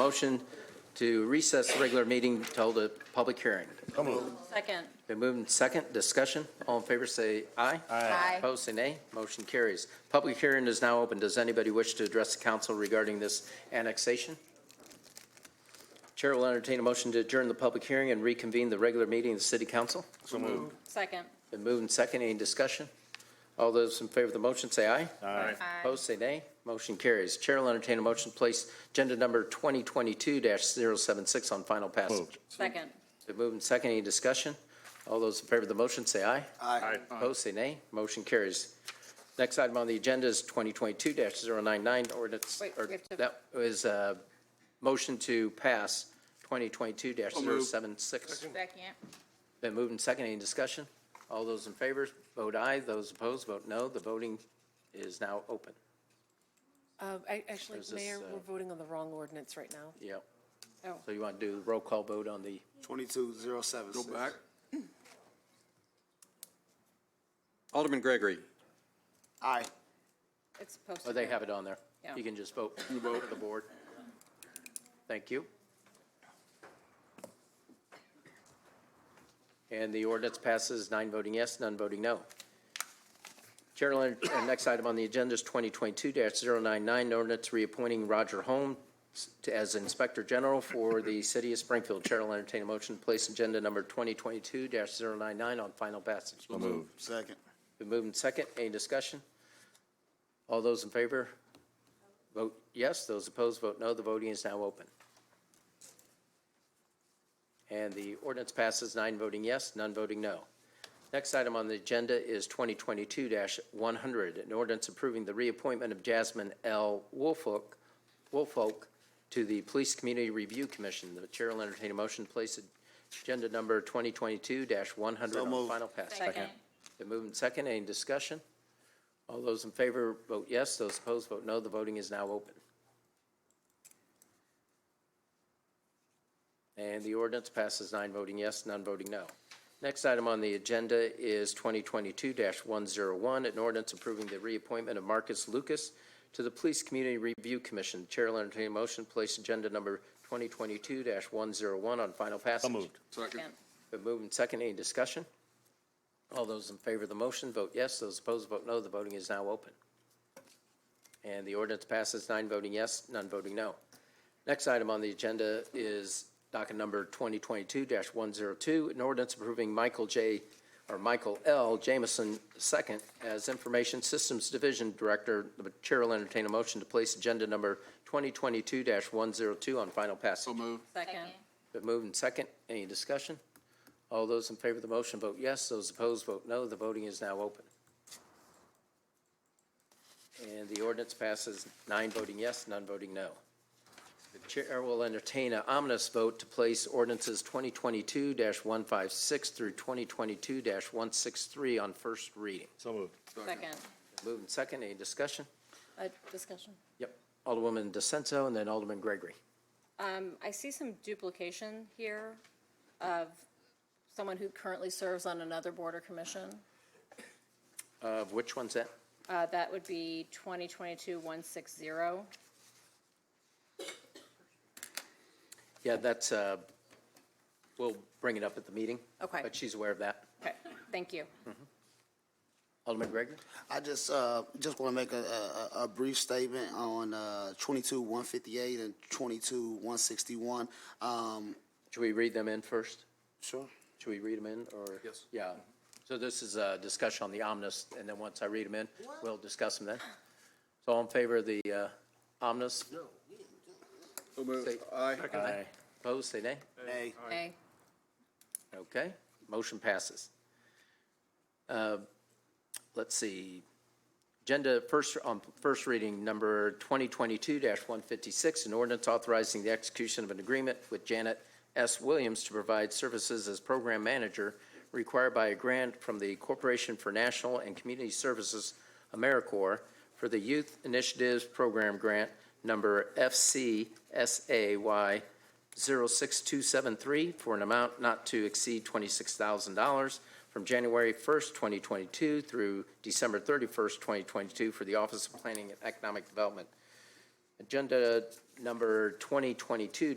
Motion to recess the regular meeting to hold a public hearing. Second. Been moved and second, discussion. All in favor, say aye. Aye. Opposed, say nay. Motion carries. Public hearing is now open. Does anybody wish to address the council regarding this annexation? Chair will entertain a motion to adjourn the public hearing and reconvene the regular meeting of the city council. Second. Been moved and second, any discussion? All those in favor of the motion, say aye. Aye. Opposed, say nay. Motion carries. Chair will entertain a motion to place agenda number 2022-076 on final passage. Second. Been moved and second. Any discussion? All those in favor of the motion, say aye. Aye. Opposed, say nay. Motion carries. Next item on the agenda is 2022-099 ordinance. Wait, or we have to- That is a motion to pass 2022-076. Second. Been moved and second. Any discussion? All those in favor, vote aye. Those opposed, vote no. The voting is now open. Uh, I- Actually, There's this, Mayor, uh, we're voting on the wrong ordinance right now. Yep. Oh. So you want to do roll call vote on the, Twenty-two zero seven six. Go back. Alderman Gregory. Aye. It's supposed to. oh, they go. have it on there. Yeah. You can just vote. You vote. The board. Thank you. And the ordinance passes, nine voting yes, none voting no. Chair, will enter- uh, next item on the agenda is 2022-099, ordinance reappointing Roger Holmes to- as Inspector General for the City of Springfield. Chair will entertain a motion to place agenda number 2022-099 on final passage. Move. Second. Been moved and second. Any discussion? All those in favor? Vote yes. Those opposed, vote no. The voting is now open. And the ordinance passes nine voting yes, none voting no. Next item on the agenda is 2022-100, an ordinance approving the reappointment of Jasmine L. Wolfolk, Wolfolk to the Police Community Review Commission. The chair will entertain a motion to place agenda number 2022-100 So on moved. final passage. Second. Been moved and second. Any discussion? All those in favor vote yes. Those opposed vote no. The voting is now open. And the ordinance passes nine voting yes, none voting no. Next item on the agenda is 2022-101, an ordinance approving the reappointment of Marcus Lucas to the Police Community Review Commission. Chair will entertain a motion to place agenda number 2022-101 on final passage. Second. Been moved and seconded. Any discussion? All those in favor of the motion, vote yes. Those opposed, vote no. The voting is now open. And the ordinance passes, nine voting yes, none voting no. Next item on the agenda is docket number 2022-102, an ordinance approving Michael J., or Michael L. Jamison II as Information Systems Division Director. The chair will entertain a motion to place agenda number 2022-102 on final passage. Second. Been moved and second. Any discussion? All those in favor of the motion vote yes. Those opposed vote no. The voting is now open. And the ordinance passes nine voting yes, none voting no. The chair will entertain an ominous vote to place ordinances 2022-156 through 2022-163 on first reading. So moved. Second. Moved and second. Any discussion? Uh, discussion. Yep. Alderwoman DeSenzo and then Alderman Gregory. Um, I see some duplication here of someone who currently serves on another board or commission. Uh, Which one's that? Uh, that would be twenty twenty-two one six zero. Yeah, that's, uh, we'll bring it up at the meeting. Okay. But she's aware of that. Okay, thank you. Hmm. Alderman Gregory? I just, uh, just want to make a, a, a- a brief statement on, uh, twenty-two one fifty-eight and twenty-two one sixty-one. Um, Should we read them in first? sure. Should we read them in, or? Yes. Yeah. So this is a discussion on the omnibus, and then once I read them in, we'll discuss them then. So all in favor of the uh, omnibus? So moved. Say- Aye. Aye. Opposed, say nay. Nay. Okay. Okay, motion passes. Uh, Let's see, agenda first, on first reading, number 2022-156, an ordinance authorizing the execution of an agreement with Janet S. Williams to provide services as program manager required by a grant from the Corporation for National and Community Services, AmeriCorps, for the Youth Initiatives Program Grant, number FCSAY 06273 for an amount not to exceed $26,000 from January 1st, 2022 through December 31st, 2022 for the Office of Planning and Economic Development. Agenda number 2022